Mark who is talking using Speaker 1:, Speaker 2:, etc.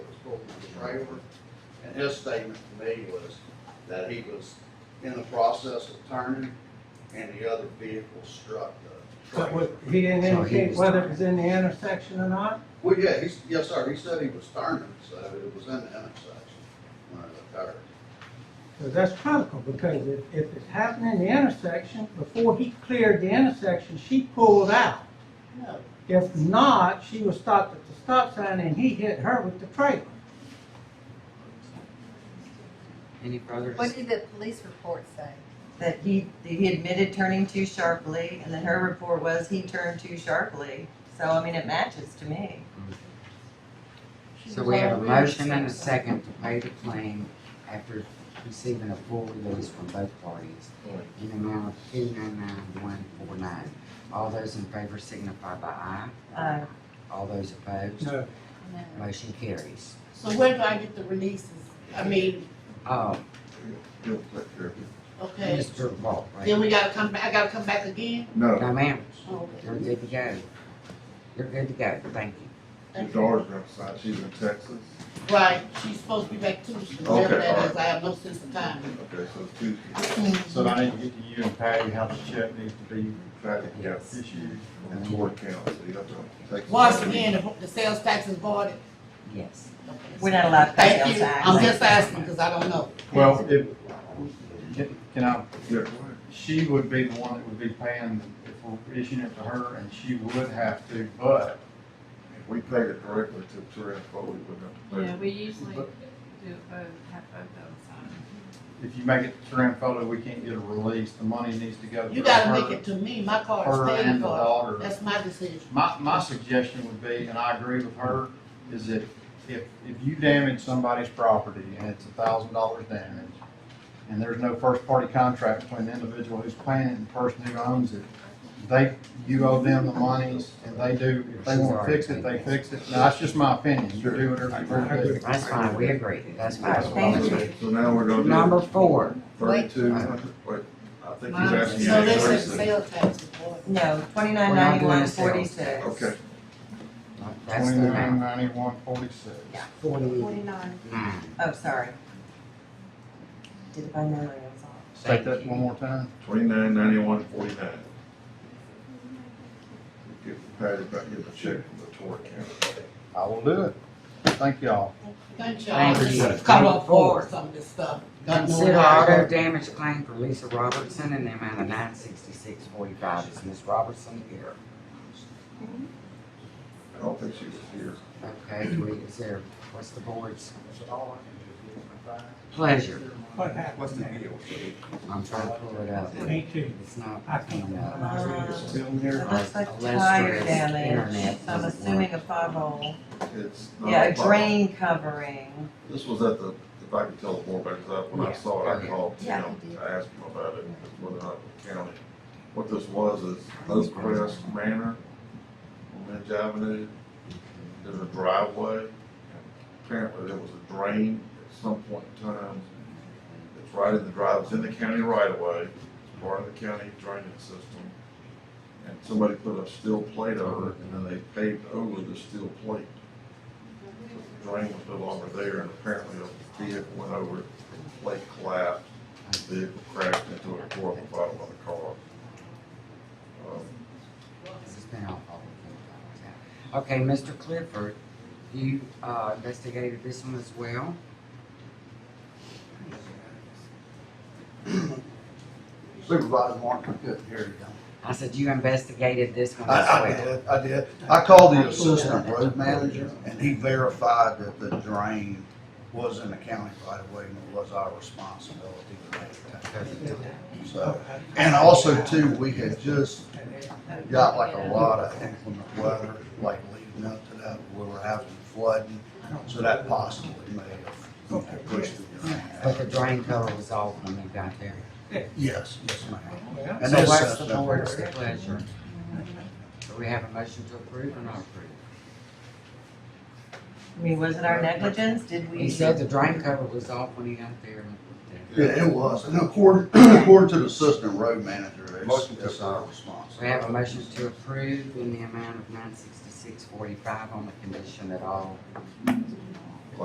Speaker 1: Craver, and his statement to me was that he was in the process of turning, and the other vehicle struck the
Speaker 2: But
Speaker 1: trailer.
Speaker 2: would- he didn't
Speaker 3: So he
Speaker 2: indicate
Speaker 3: was
Speaker 2: whether it
Speaker 3: done.
Speaker 2: was in the intersection or not?
Speaker 1: Well, yeah, he's, yes, sir, he said he was turning, so it was in the intersection when it occurred.
Speaker 2: Because that's critical, because if, if it happened in the intersection, before he cleared the intersection, she pulled out.
Speaker 1: Yeah.
Speaker 2: If not, she was stopped at the stop sign and he hit her with the trailer.
Speaker 4: Any further?
Speaker 5: What did the police report say?
Speaker 6: that he, that he admitted turning too sharply, and then her report was he turned too sharply. So, I mean, it matches to me.
Speaker 4: So we have a motion and a second to pay the claim after receiving a full release from both parties in the amount of two nine nine one four nine. All those in favor signify by aye.
Speaker 6: Aye.
Speaker 4: All those opposed,
Speaker 2: No,
Speaker 5: No.
Speaker 4: motion carries.
Speaker 7: So where do I get the releases? I mean,
Speaker 4: Oh,
Speaker 3: You'll take care of it.
Speaker 7: okay,
Speaker 4: Mr. Walt, right?
Speaker 7: then we gotta come back, I gotta come back again?
Speaker 3: No,
Speaker 4: No, ma'am,
Speaker 7: Okay.
Speaker 4: you're good to go. You're good to go, thank you.
Speaker 3: your daughter's outside, she's in Texas.
Speaker 7: Right, she's supposed to be back Tuesday, whatever
Speaker 3: Okay,
Speaker 7: that
Speaker 3: alright.
Speaker 7: is, I have no sense of time.
Speaker 3: Okay, so Tuesday,
Speaker 8: So I need to get to you and Patty how the check needs to be
Speaker 3: Friday, yeah,
Speaker 8: issued.
Speaker 3: and toward council, you have to take. some-
Speaker 7: Once again, the- the sales tax is voided.
Speaker 4: Yes.
Speaker 6: We're not allowed to pay
Speaker 7: Thank
Speaker 6: sales
Speaker 7: you, I'm
Speaker 6: tax.
Speaker 7: just asking, cause I don't know.
Speaker 8: Well, if, can- can I,
Speaker 3: Yeah.
Speaker 8: she would be the one that would be paying if we're issuing it to her and she would have to, but
Speaker 3: If we paid it directly to Terrell, we wouldn't have to pay.
Speaker 9: Yeah, we usually do both, have both of them signed.
Speaker 8: if you make it to Trinfola, we can't get a release. The money needs to go to her.
Speaker 7: You gotta make it to me, my card
Speaker 8: Her
Speaker 7: is
Speaker 8: and
Speaker 7: staying
Speaker 8: the
Speaker 7: for,
Speaker 8: daughter.
Speaker 7: that's my decision.
Speaker 8: My, my suggestion would be, and I agree with her, is that if, if you damage somebody's property and it's a thousand dollars damage, and there's no first party contract between the individual who's paying it and the person who owns it, they, you owe them the monies, and they do, if they wanna fix it, they fix it. Now, that's just my opinion, you do whatever you wanna do.
Speaker 4: That's fine, we agree, that's
Speaker 6: All right, thank
Speaker 4: fine.
Speaker 3: um, So now we're gonna
Speaker 4: Number
Speaker 3: do
Speaker 4: four,
Speaker 3: thirty-two hundred, wait, I think he's
Speaker 9: Mine-
Speaker 3: asking. you
Speaker 7: So
Speaker 3: to
Speaker 7: this is
Speaker 3: raise it.
Speaker 7: sales tax is voided.
Speaker 6: No, twenty-nine
Speaker 4: We're not doing
Speaker 6: ninety-one
Speaker 4: a sales
Speaker 6: forty-six.
Speaker 3: Okay,
Speaker 4: that's the
Speaker 8: Twenty-nine
Speaker 4: nine,
Speaker 8: ninety-one forty-six.
Speaker 4: forty-nine.
Speaker 6: Forty-nine. Oh, sorry. Did it by memory, I was off.
Speaker 8: Say that one more time.
Speaker 3: twenty-nine ninety-one forty-nine. Get Patty back, get the check from the Torrey County.
Speaker 8: I will do it. Thank y'all.
Speaker 7: Gunshot,
Speaker 4: Thank you.
Speaker 7: just cut off forward some of this stuff. Got no
Speaker 4: Consider
Speaker 7: wire.
Speaker 4: auto damage claim for Lisa Robertson in the amount of nine sixty-six forty-five. Is Miss Robertson here?
Speaker 3: I don't think she was here.
Speaker 4: Okay, do we, is there, what's the board's pleasure?
Speaker 2: what happened there?
Speaker 4: I'm trying to pull it up.
Speaker 2: Me too.
Speaker 4: It's not.
Speaker 2: I can't.
Speaker 4: uh,
Speaker 6: It looks like
Speaker 4: Unless
Speaker 6: tire
Speaker 4: there's
Speaker 6: damage,
Speaker 4: internet
Speaker 6: so I'm
Speaker 4: doesn't
Speaker 6: assuming a pothole.
Speaker 3: It's not.
Speaker 6: Yeah, a
Speaker 3: a problem.
Speaker 6: drain covering.
Speaker 3: This was at the, if I could tell the board back, because I, when I
Speaker 4: Yeah,
Speaker 3: saw it, I
Speaker 4: okay.
Speaker 3: called
Speaker 5: Yeah,
Speaker 3: Tim
Speaker 5: you did.
Speaker 3: to ask him about it, whether or not the county. What this was is Oak Crest Manor on Midge Avenue, there's a driveway. Apparently there was a drain at some point in time. It's right in the drive, it's in the county right away, It's part of the county drainage system. And somebody put a steel plate over it and then they paved over the steel plate drain was no longer there, and apparently a vehicle went over, it, the plate collapsed, and the vehicle crashed into it, tore up the bottom of the car. Um,
Speaker 4: This has been all public info. Okay, Mr. Clifford, you, uh, investigated this one as well?
Speaker 1: Supervisor Martin, I couldn't hear you.
Speaker 4: I said you investigated this one as
Speaker 1: I, I
Speaker 4: well.
Speaker 1: did, I did. I called the assistant road manager and he verified that the drain was in the county right away and it was our responsibility to maintain. it. So, and also too, we had just got like a lot of inclement weather, like leading up to that, we were having flooding. So that possibly may have you know, pushed the drain.
Speaker 4: But the drain cover was off when you got there.
Speaker 1: Yes, yes ma'am.
Speaker 2: Well,
Speaker 1: And
Speaker 4: So
Speaker 1: this
Speaker 4: what's the
Speaker 1: says that-
Speaker 4: board's pleasure? Do we have a motion to approve or not approve?
Speaker 6: I mean, was it our negligence? Did we?
Speaker 4: He said the drain cover was off when he got there.
Speaker 1: Yeah, it was, and according, according to the assistant road manager, it's,
Speaker 3: Motion to
Speaker 1: it's our
Speaker 3: approve.
Speaker 1: response.
Speaker 4: We have a motion to approve in the amount of nine sixty-six forty-five on the condition that all